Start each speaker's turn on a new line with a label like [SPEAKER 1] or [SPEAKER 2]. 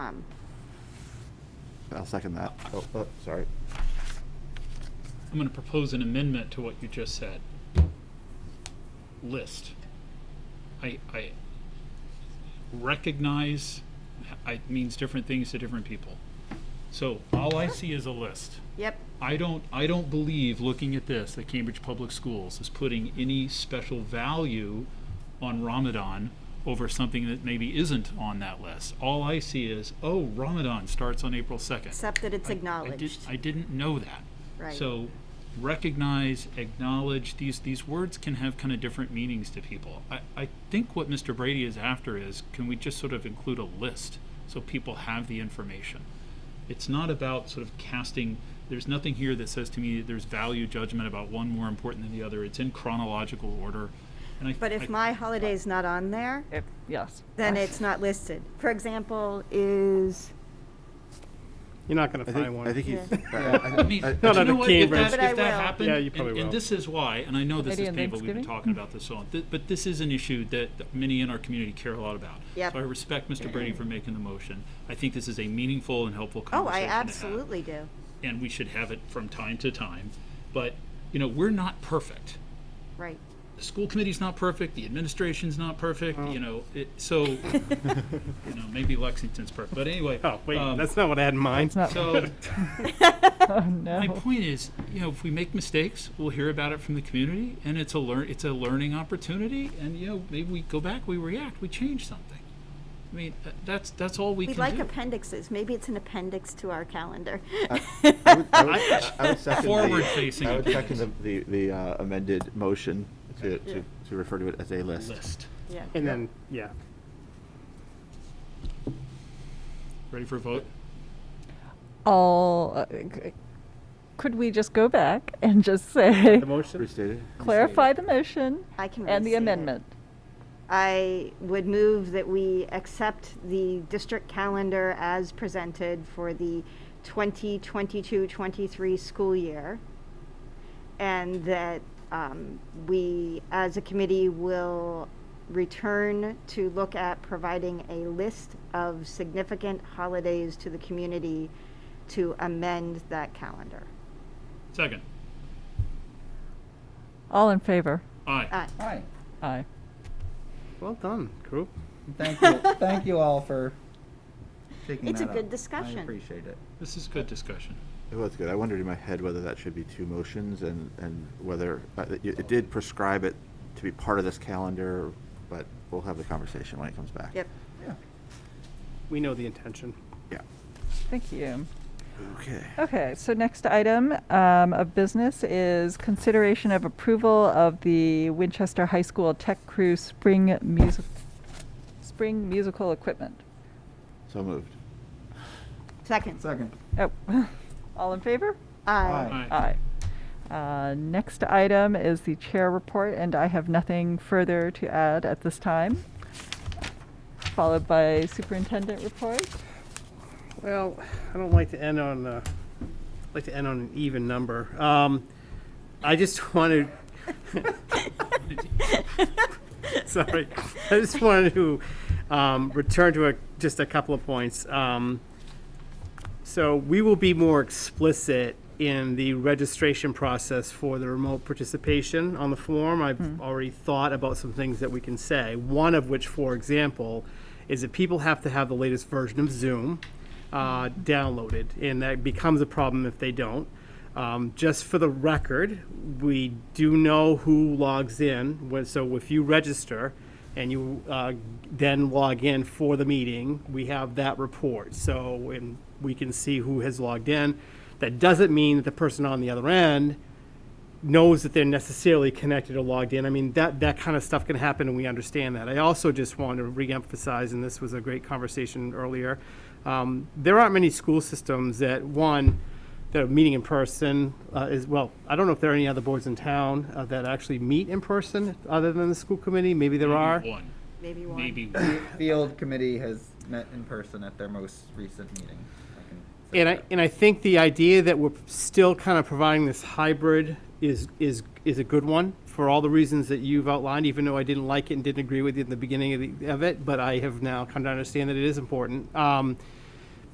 [SPEAKER 1] um,
[SPEAKER 2] I'll second that. Oh, oh, sorry.
[SPEAKER 3] I'm going to propose an amendment to what you just said. List. I, I recognize I- it means different things to different people. So all I see is a list.
[SPEAKER 1] yep,
[SPEAKER 3] I don't, I don't believe, looking at this, that Cambridge Public Schools is putting any special value on Ramadan over something that maybe isn't on that list. All I see is, oh, Ramadan starts on April 2nd.
[SPEAKER 1] except that it's
[SPEAKER 3] I did-
[SPEAKER 1] acknowledged,
[SPEAKER 3] I didn't know that.
[SPEAKER 1] right?
[SPEAKER 3] So recognize, acknowledge, these, these words can have kind of different meanings to people. I, I think what Mr. Brady is after is, can we just sort of include a list so people have the information? It's not about sort of casting, there's nothing here that says to me that there's value judgment about one more important than the other. It's in chronological order. And I,
[SPEAKER 1] But
[SPEAKER 3] I-
[SPEAKER 1] if my holiday's not on there,
[SPEAKER 4] If, yes.
[SPEAKER 1] then it's not listed. For example, is,
[SPEAKER 5] You're not going
[SPEAKER 2] I
[SPEAKER 5] to find
[SPEAKER 2] think,
[SPEAKER 5] one.
[SPEAKER 2] I think he's. I-
[SPEAKER 3] I mean,
[SPEAKER 2] I- I-
[SPEAKER 3] but
[SPEAKER 5] No,
[SPEAKER 3] you
[SPEAKER 5] no,
[SPEAKER 3] know
[SPEAKER 5] the
[SPEAKER 3] what?
[SPEAKER 5] key
[SPEAKER 3] If that,
[SPEAKER 5] verse-
[SPEAKER 1] But I
[SPEAKER 3] if that
[SPEAKER 1] will.
[SPEAKER 3] happened,
[SPEAKER 5] Yeah, you probably
[SPEAKER 3] and, and
[SPEAKER 5] will.
[SPEAKER 3] this is why, and I know this
[SPEAKER 4] Maybe
[SPEAKER 3] is
[SPEAKER 4] on
[SPEAKER 3] painful. We've been
[SPEAKER 4] Thanksgiving?
[SPEAKER 3] talking about this so long, Th- but this is an issue that that many in our community care a lot about.
[SPEAKER 1] Yep.
[SPEAKER 3] So I respect Mr. Brady for making the motion. I think this is a meaningful and helpful
[SPEAKER 1] oh,
[SPEAKER 3] conversation.
[SPEAKER 1] I
[SPEAKER 3] to have,
[SPEAKER 1] absolutely do.
[SPEAKER 3] And we should have it from time to time, but you know we're not perfect.
[SPEAKER 1] Right.
[SPEAKER 3] The school committee's not perfect. The administration's not perfect.
[SPEAKER 5] Oh.
[SPEAKER 3] You know, it, so you know maybe Lexington's perfect, but anyway.
[SPEAKER 5] Oh, wait,
[SPEAKER 3] um,
[SPEAKER 5] that's not what I had in mind.
[SPEAKER 4] not-
[SPEAKER 3] so.
[SPEAKER 4] Oh,
[SPEAKER 3] My
[SPEAKER 4] no.
[SPEAKER 3] point is, you know, if we make mistakes, we'll hear about it from the community, and it's a learn, it's a learning opportunity, and you know, maybe we go back, we react, we change something. I mean, uh, that's that's all we
[SPEAKER 1] We'd
[SPEAKER 3] can
[SPEAKER 1] like
[SPEAKER 3] do.
[SPEAKER 1] appendixes. Maybe it's an appendix to our calendar.
[SPEAKER 2] I would- I would- I would second the-
[SPEAKER 3] Forward-facing
[SPEAKER 2] I would second the, the- the uh, amended motion to,
[SPEAKER 1] Yeah.
[SPEAKER 2] to, to refer to it as a list.
[SPEAKER 3] List.
[SPEAKER 1] Yeah.
[SPEAKER 5] And then, yeah.
[SPEAKER 3] Ready for a vote?
[SPEAKER 4] All, uh, c- could we just go back and just say,
[SPEAKER 5] The motion?
[SPEAKER 2] Restated?
[SPEAKER 4] clarify the motion
[SPEAKER 1] I can
[SPEAKER 4] and the
[SPEAKER 1] restate it.
[SPEAKER 4] amendment?
[SPEAKER 1] I would move that we accept the district calendar as presented for the 2022-23 school year. And that um, we, as a committee, will return to look at providing a list of significant holidays to the community to amend that calendar.
[SPEAKER 3] Second.
[SPEAKER 4] All in favor?
[SPEAKER 3] Aye.
[SPEAKER 1] Uh,
[SPEAKER 6] Hi.
[SPEAKER 4] Aye.
[SPEAKER 5] Well done, group.
[SPEAKER 6] Thank you. Thank you all for taking
[SPEAKER 1] It's a
[SPEAKER 6] that up.
[SPEAKER 1] good discussion.
[SPEAKER 6] I appreciate it.
[SPEAKER 3] This is good discussion.
[SPEAKER 2] It was Oh, good. I wondered in my head whether that should be two motions and, and whether, uh, it it did prescribe it to be part of this calendar, but we'll have the conversation when it comes back.
[SPEAKER 1] Yep.
[SPEAKER 6] Yeah.
[SPEAKER 5] We know the intention.
[SPEAKER 2] Yeah.
[SPEAKER 4] Thank you.
[SPEAKER 2] Okay.
[SPEAKER 4] Okay, so next item um, of business is consideration of approval of the Winchester High School Tech Crew Spring Music, Spring Musical Equipment.
[SPEAKER 2] So moved.
[SPEAKER 1] Second.
[SPEAKER 6] Second.
[SPEAKER 4] Oh, all in favor?
[SPEAKER 1] Aye.
[SPEAKER 6] Aye.
[SPEAKER 4] Aye. Uh, Next item is the chair report, and I have nothing further to add at this time. Followed by superintendent report.
[SPEAKER 5] Well, I don't like to end on, uh, like to end on an even number. Um, I just wanted, sorry, I just wanted to, um, return to a, just a couple of points. Um, so we will be more explicit in the registration process for the remote participation on the form. I've already thought about some things that we can say, one of which, for example, is that people have to have the latest version of Zoom uh, downloaded, and that becomes a problem if they don't. Um, just for the record, we do know who logs in, when- so if you register, and you uh, then log in for the meeting, we have that report. So, and we can see who has logged in. That doesn't mean that the person on the other end knows that they're necessarily connected or logged in. I mean, that, that kind of stuff can happen, and we understand that. I also just want to reemphasize, and this was a great conversation earlier, um, there aren't many school systems that, one, that are meeting in person uh, is, well, I don't know if there are any other boards in town uh, that actually meet in person other than the school committee. Maybe
[SPEAKER 3] Mm-hmm.
[SPEAKER 5] there are.
[SPEAKER 3] One.
[SPEAKER 1] Maybe one.
[SPEAKER 3] Maybe one.
[SPEAKER 6] Field committee has met in person at their most recent meeting. I can say
[SPEAKER 5] And I,
[SPEAKER 6] that.
[SPEAKER 5] and I think the idea that we're still kind of providing this hybrid is, is, is a good one for all the reasons that you've outlined, even though I didn't like it and didn't agree with you in the beginning of, the, of it, but I have now come to understand that it is important. Um,